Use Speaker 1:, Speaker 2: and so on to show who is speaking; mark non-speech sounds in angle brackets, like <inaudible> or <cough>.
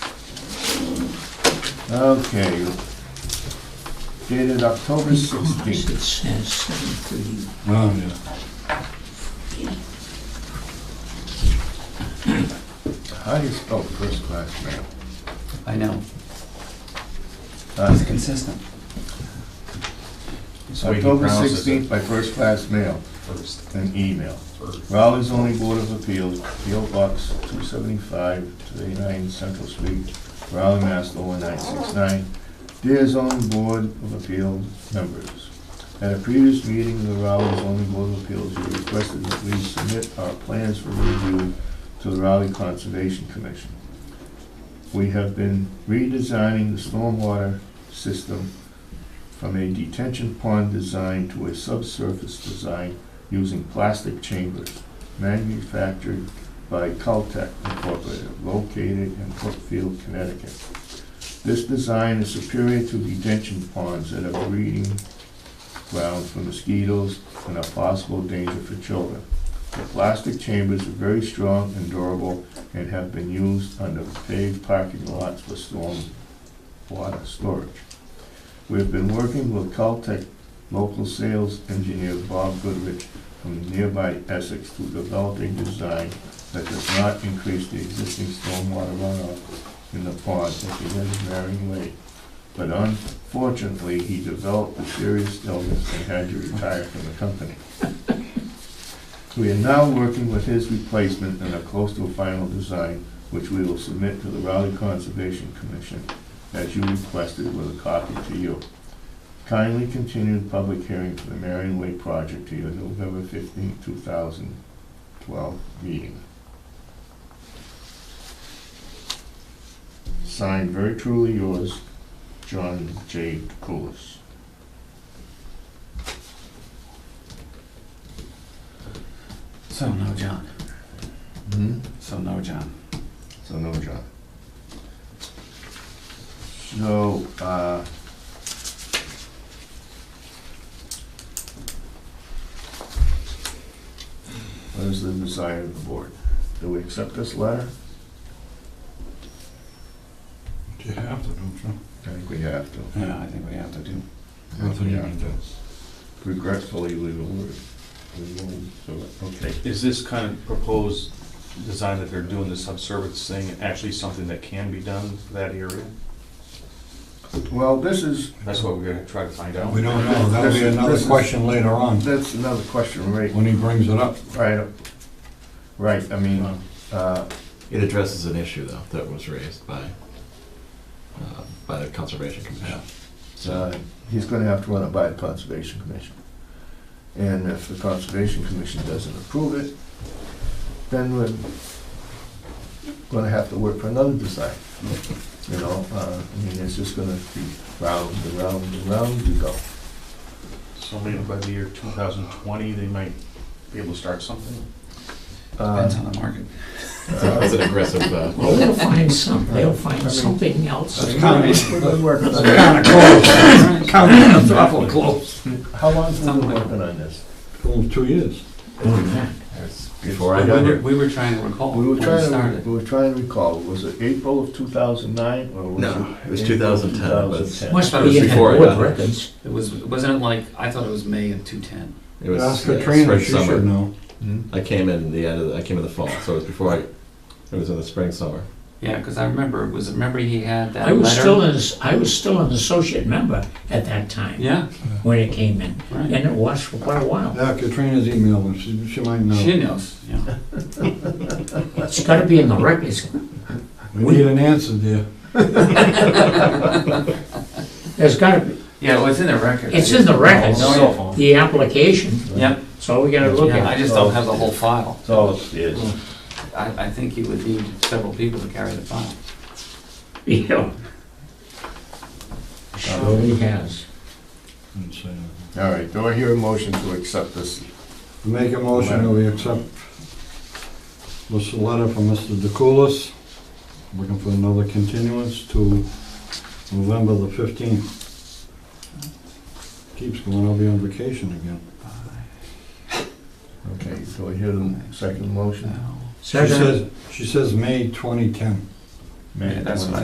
Speaker 1: Okay. Dated October
Speaker 2: It
Speaker 1: sixteenth.
Speaker 2: says seven thirty.
Speaker 1: Oh, yeah. How do you spell first class mail?
Speaker 3: I know,
Speaker 1: Uh,
Speaker 3: it's consistent.
Speaker 1: it's
Speaker 4: the way he
Speaker 1: October
Speaker 4: pronounces it.
Speaker 1: sixteenth by first class mail
Speaker 4: First,
Speaker 1: and email.
Speaker 4: first.
Speaker 1: Raleigh's only Board of Appeals, P.O. Box 275, 289 Central Street, Raleigh, Mass. 01969. Dear zoning Board of Appeals members, at a previous meeting of the Raleigh's only Board of Appeals, you requested that we submit our plans for review to the Raleigh Conservation Commission. We have been redesigning the stormwater system from a detention pond design to a subsurface design using plastic chambers manufactured by Caltech Incorporated, located in Brookfield, Connecticut. This design is superior to detention ponds that are breeding grounds for mosquitoes and a possible danger for children. The plastic chambers are very strong and durable and have been used under paved parking lots for storm water storage. We have been working with Caltech local sales engineer Bob Goodrich from nearby Essex to develop a design that does not increase the existing stormwater runoff in the pond at the end of Marion Lake. But unfortunately, he developed a serious illness and had to retire from the company. We are now working with his replacement and are close to a final design, which we will submit to the Raleigh Conservation Commission as you requested with a copy to you. Kindly continue the public hearing for the Marion Way project to your November fifteenth, two thousand twelve meeting. Signed, very truly yours, John J. Coolis.
Speaker 3: So no John,
Speaker 1: Hmm?
Speaker 3: so no John.
Speaker 1: So no John. So, uh. What is the desire of the board? Do we accept this letter?
Speaker 4: You have to, don't you?
Speaker 1: I think we have to.
Speaker 3: Yeah, I think we have to do.
Speaker 4: Nothing you
Speaker 1: Yeah.
Speaker 4: can do.
Speaker 1: Regretfully, we will, we will, so, okay.
Speaker 5: Is this kind of proposed design that they're doing, the subsurface thing, actually something that can be done for that area?
Speaker 1: Well, this is,
Speaker 5: That's what we're gonna try to find out.
Speaker 4: We don't know, that'll
Speaker 1: This
Speaker 4: be
Speaker 1: is-
Speaker 4: another
Speaker 1: this is-
Speaker 4: question later on,
Speaker 1: that's another question, right,
Speaker 4: when he brings it up.
Speaker 1: right, right, I mean, uh,
Speaker 6: It addresses an issue though that was raised by uh, by the conservation commission.
Speaker 1: uh, he's gonna have to run it by the Conservation Commission. And if the Conservation Commission doesn't approve it, then we're gonna have to work for another design. You know, uh, I mean, it's just gonna be round and round and round you go.
Speaker 5: So maybe by the year two thousand twenty, they might be able to start something?
Speaker 1: Uh,
Speaker 3: Depends on the
Speaker 1: <coughs>
Speaker 3: market.
Speaker 6: It's an aggressive. Uh,
Speaker 2: Well, they'll find some, they'll
Speaker 1: I mean-
Speaker 2: find something else.
Speaker 4: That's kind of,
Speaker 1: We've been working on
Speaker 4: kind
Speaker 1: it.
Speaker 4: of
Speaker 1: <laughs>
Speaker 4: close, kind of awful close.
Speaker 1: How long have we been working on this?
Speaker 4: Almost two years.
Speaker 6: it's before I
Speaker 3: We
Speaker 6: got
Speaker 3: were,
Speaker 6: here.
Speaker 3: we were trying to recall
Speaker 1: We
Speaker 3: when
Speaker 1: were
Speaker 3: we
Speaker 1: trying to,
Speaker 3: started.
Speaker 1: we were trying to recall, was it April of two thousand nine or was it?
Speaker 6: No, it was
Speaker 1: April
Speaker 6: 2010, but it's-
Speaker 1: 2010?
Speaker 2: Must
Speaker 6: That was
Speaker 2: be in the
Speaker 6: before I
Speaker 2: board
Speaker 6: got it.
Speaker 2: records.
Speaker 3: It was, wasn't it like, I thought it was May of 210.
Speaker 6: It was
Speaker 4: Ask
Speaker 6: yeah,
Speaker 4: Katrina,
Speaker 6: spring
Speaker 4: she
Speaker 6: summer.
Speaker 4: should know.
Speaker 1: Hmm?
Speaker 6: I came in the end. Of the, I came in the fall, so it was before I. It was in the spring summer.
Speaker 3: Yeah, because I remember, it was, remember he had that
Speaker 2: I
Speaker 3: letter?
Speaker 2: was still an, I was still an associate member at that time,
Speaker 3: Yeah,
Speaker 2: when it came in, and
Speaker 3: right.
Speaker 2: it was for quite a while.
Speaker 4: Yeah, Katrina's emailing, she, she might know.
Speaker 3: She knows, yeah.
Speaker 2: It's gotta be in the records.
Speaker 4: We need an answer there.
Speaker 2: There's gotta be,
Speaker 3: Yeah, well, it's in the record.
Speaker 2: it's in the records,
Speaker 3: Cell phone.
Speaker 2: the application,
Speaker 3: Yep,
Speaker 2: so we gotta look <laughs>
Speaker 3: yeah,
Speaker 2: at
Speaker 3: I
Speaker 2: it.
Speaker 3: just
Speaker 1: Oh.
Speaker 3: don't have the whole file.
Speaker 1: It's all upstairs.
Speaker 3: Hmm. I, I think you would need several people to carry the file.
Speaker 2: Yeah. Sure he has.
Speaker 4: And so,
Speaker 1: All right, do I hear a motion to accept this?
Speaker 4: Make a motion that we accept this letter from Mr. DeCoulis, looking for another continuance to November the 15th. Keeps going, I'll be on vacation again.
Speaker 1: Okay, do I hear the second motion?
Speaker 3: No.
Speaker 4: She says, she says May 2010.
Speaker 1: May
Speaker 3: Yeah, that's what I